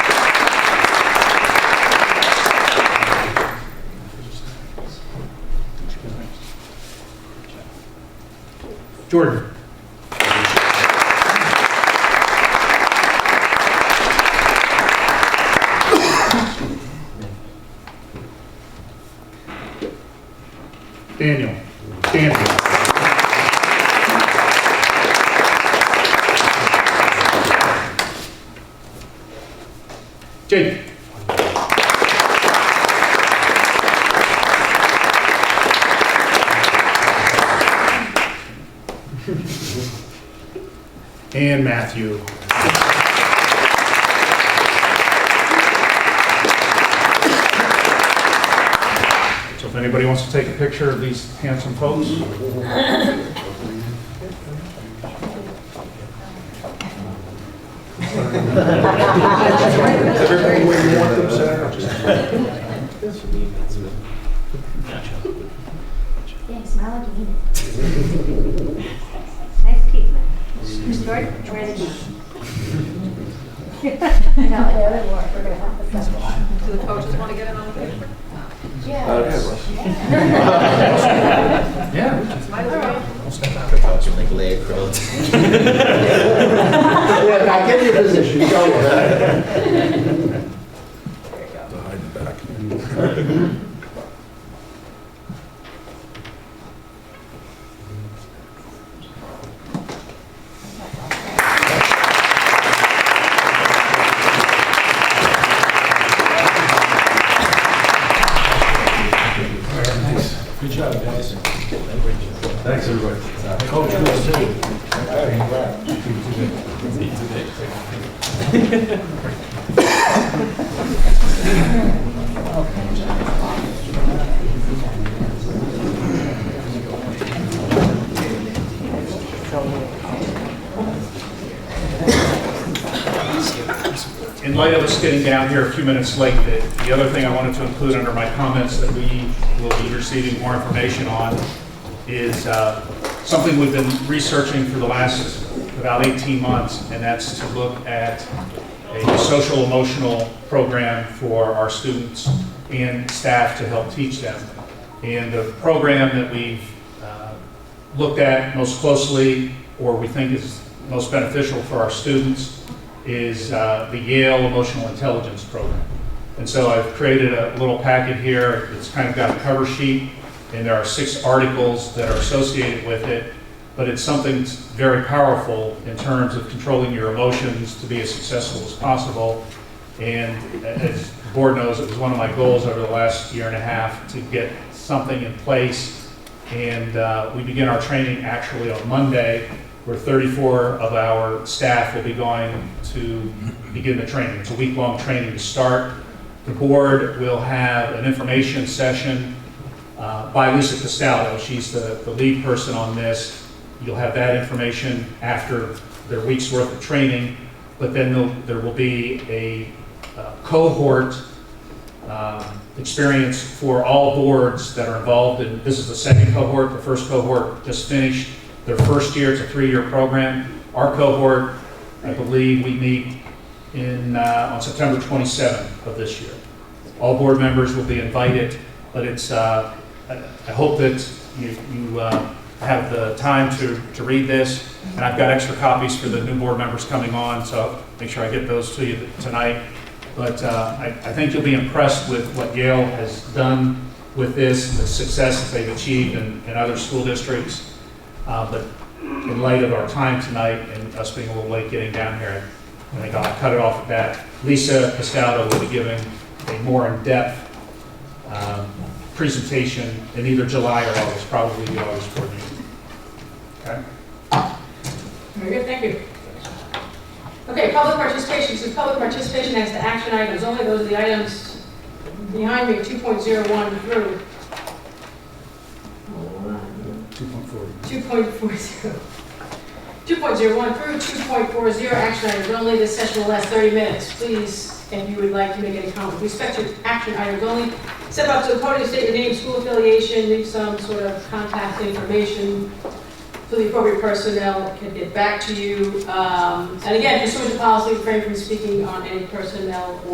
Jordan. Daniel. Daniel. Jake. And Matthew. So if anybody wants to take a picture of these handsome folks. Everything we want them set up. Thanks, my lucky unit. Nice teeth, man. Jordan, where is it? No, I know it wore, we're gonna have to settle. Do the coaches want to get in on the picture? Yeah. Might as well. like lay across. Look, I get your position, don't worry. In light of us getting down here a few minutes late, the the other thing I wanted to include under my comments that we will be receiving more information on is uh, something we've been researching for the last about 18 months, and that's to look at a social emotional program for our students and staff to help teach them. And the program that we've uh, looked at most closely, or we think is most beneficial for our students, is uh, the Yale Emotional Intelligence Program. And so I've created a little packet here, it's kind of got a cover sheet, and there are six articles that are associated with it, but it's something that's very powerful in terms of controlling your emotions to be as successful as possible. And as the board knows, it was one of my goals over the last year and a half to get something in place. And uh, we begin our training actually on Monday, where 34 of our staff will be going to begin the training. It's a week-long training to start. The board will have an information session uh, by Lisa Costello. She's the the lead person on this. You'll have that information after their week's worth of training, but then there'll- there will be a uh, cohort um, experience for all boards that are involved, and this is the second cohort, the first cohort just finished their first year, it's a three-year program. Our cohort, I believe, we meet in, uh, on September 27th of this year. All board members will be invited, but it's, uh, I I hope that you you, uh, have the time to to read this, and I've got extra copies for the new board members coming on, so make sure I get those to you tonight. But uh, I I think you'll be impressed with what Yale has done with this, the success that they've achieved in in other school districts. Uh, But in light of our time tonight and us being a little late getting down here, I think I'll cut it off at that. Lisa Castaldo will be giving a more in-depth um, presentation in either July or August, probably the August board meeting. Okay? Very good, thank you. Okay, public participation, since public participation as to action items, only those are the items behind me, 2.01 through. 2.40. 2.01 through 2.40, action items only, this session will last 30 minutes. Please, if you would like to make any comment, with respect to action items only, step up to the podium, state your name, school affiliation, leave some sort of contact information for the appropriate personnel can get back to you. Um, And again, pursuant to policy, refrain from speaking on any personnel or